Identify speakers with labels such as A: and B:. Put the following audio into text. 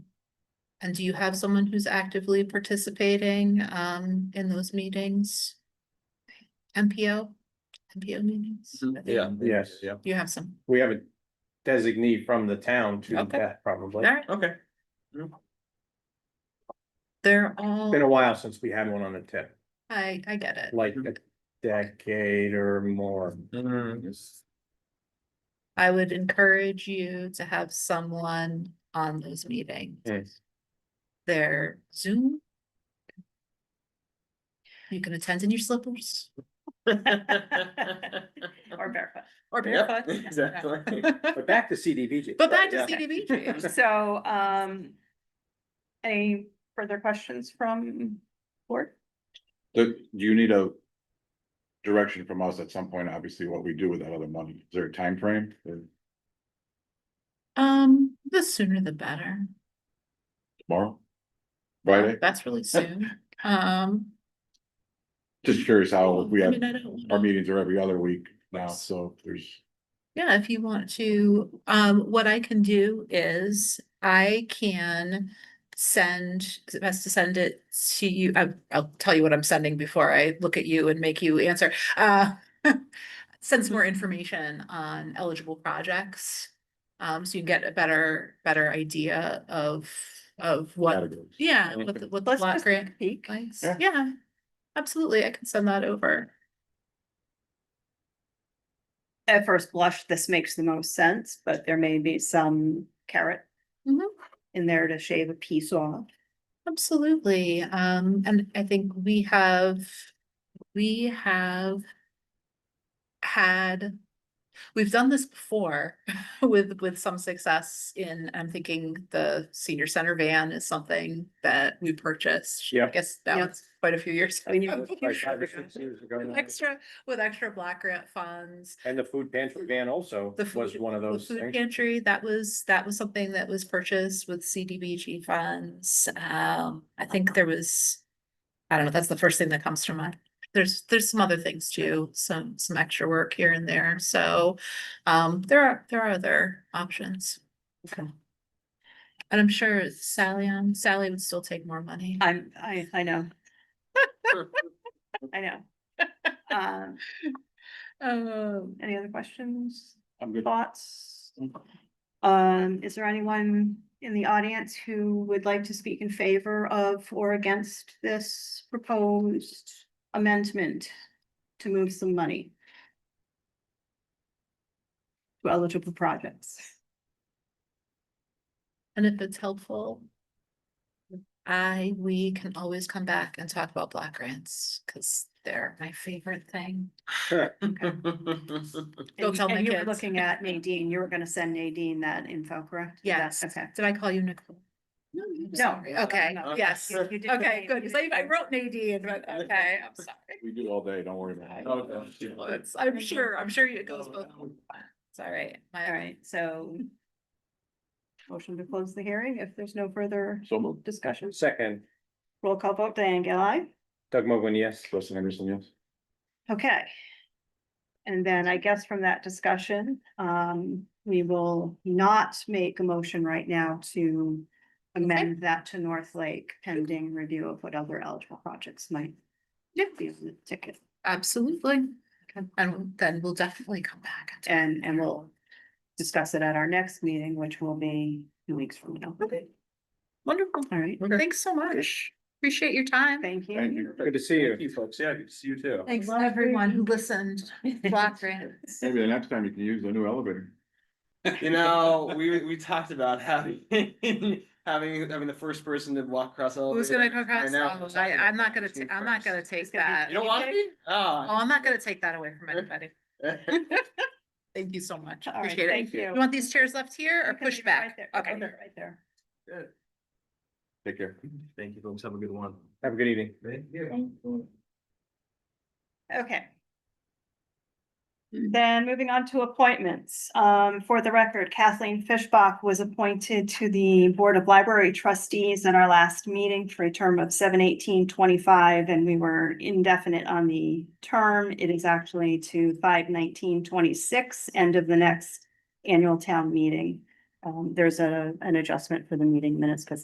A: And do you have someone who's actively participating um in those meetings? MPO, MPO meetings? I think
B: Mm-hmm. Yeah.
C: Yes.
B: Yeah.
A: You have some,
C: We have a designee from the town to
A: Okay.
C: that probably.
A: alright,
B: Okay.
A: they're all,
C: Been a while since we had one on the tip,
A: I I get it.
C: like a decade or more.
A: I would encourage you to have someone on those meetings.
C: Yes.
A: Their Zoom. You can attend in your slippers. Or barefoot. Or
B: Yep,
A: barefoot. yeah,
B: exactly.
A: yeah.
C: But back to CDVG.
A: But back to
C: Yeah.
A: CDBG.
D: So, um, any further questions from board?
E: Do you need a direction from us at some point, obviously, what we do with that other money? Is there a timeframe? Or
A: Um, the sooner the better.
E: Tomorrow?
A: Um,
E: Friday?
A: That's really soon. Um.
E: Just curious how
A: well,
E: we
A: I
E: have,
A: mean, I don't
E: our
A: know.
E: meetings are every other week now, so if there's.
A: Yeah, if you want to, um, what I can do is I can send, is it best to send it to you? I, I'll tell you what I'm sending before I look at you and make you answer. Uh, send some more information on eligible projects. Um, so you can get a better, better idea of, of what,
E: categories.
A: yeah, what, the- what the
D: Let's
A: block
D: just
A: grant
D: peek.
A: likes.
E: Yeah.
A: Yeah, absolutely. I can send that over.
D: At first blush, this makes the most sense, but there may be some carrot
A: Mhm.
D: in there to shave a piece off.
A: Absolutely, um, and I think we have, we have had, we've done this before with, with some success in, I'm thinking the senior center van is something that we purchased. I
C: Yep.
A: guess that
D: Yep.
A: was quite a few years.
D: I mean, you-
A: ago.
C: Like five or six years ago now.
A: Extra, with extra block grant funds,
C: And the food pantry van also
A: the.
C: was
A: food-
C: one of
A: the
C: those
A: food
C: things.
A: Pantry, that was, that was something that was purchased with CDBG funds. Um, I think there was. I don't know, that's the first thing that comes to mind. There's, there's some other things too, some, some extra work here and there, so, um, there are, there are other options. Okay. And I'm sure Sally, um, Sally would still take more money.
D: I'm, I, I know. I know. Um,
A: Um,
D: any other questions,
E: I'm good.
D: thoughts? Um, is there anyone in the audience who would like to speak in favor of or against this proposed amendment to move some money? To eligible projects.
A: and if it's helpful. I, we can always come back and talk about block grants, cause they're my favorite thing. Go
D: And you-
A: tell my
D: and you were
A: kids.
D: Looking at Nadine, you were gonna send Nadine that info, correct? Is that-
A: Yes.
D: Okay.
A: Did I call you Nicole? No.
D: No,
A: Sorry,
D: no,
A: okay,
D: no,
A: yes,
D: you- you did
A: okay,
D: great.
A: good,
D: You
A: because
D: did
A: I
D: great.
A: wrote Nadine, but okay, I'm sorry.
E: We do all day, don't worry about it.
B: Okay.
A: Well, it's- I'm
D: Thank you.
A: sure, I'm sure it goes both. It's all right,
D: All
A: my,
D: right, so. Motion to close the hearing if there's no further
E: So moved.
D: discussion.
C: Second,
D: Roll call vote, Diane Gale.
C: Doug Mogul, yes.
E: Justin Anderson, yes?
D: Okay. And then I guess from that discussion, um, we will not make a motion right now to amend that to North Lake pending review of what other eligible projects might
A: Yeah.
D: be on the ticket.
A: absolutely, and then we'll definitely come back. and talk.
D: And, and we'll discuss it at our next meeting, which will be two weeks from now.
A: Okay. Wonderful,
D: All right,
A: thanks so much, appreciate your time.
D: thank
E: Thank
D: you.
E: you.
C: Good to see
B: Thank
C: you.
B: you, folks. Yeah, good to see you too.
A: Thanks to everyone who listened, block grants.
E: Maybe the next time you can use the new elevator.
B: You know, we, we talked about having, having, having the first person to walk across. the
A: Who's gonna
B: elevator.
A: go across,
B: know.
A: Oh, I, I'm not gonna, ta- I'm not gonna
D: It's
A: take
D: gonna be-
A: that,
B: You don't want to be?
A: oh,
B: Ah.
A: I'm not gonna take that away from anybody. Thank you so much,
D: All right,
A: appreciate it.
D: thank you.
A: You want these chairs left here or
D: You can leave
A: pushed
D: it right
A: back?
D: there.
A: Okay.
D: Leave it Right there.
E: Take care.
B: Thank you, folks. Have a good one.
C: Have a good evening.
B: Thank you.
D: Okay.
A: Mm.
D: Then moving on to appointments. Um, for the record, Kathleen Fishbach was appointed to the Board of Library Trustees in our last meeting for a term of seven eighteen twenty-five, and we were indefinite on the term. It is actually to five nineteen twenty-six, end of the next annual town meeting. Um, there's a, an adjustment for the meeting minutes because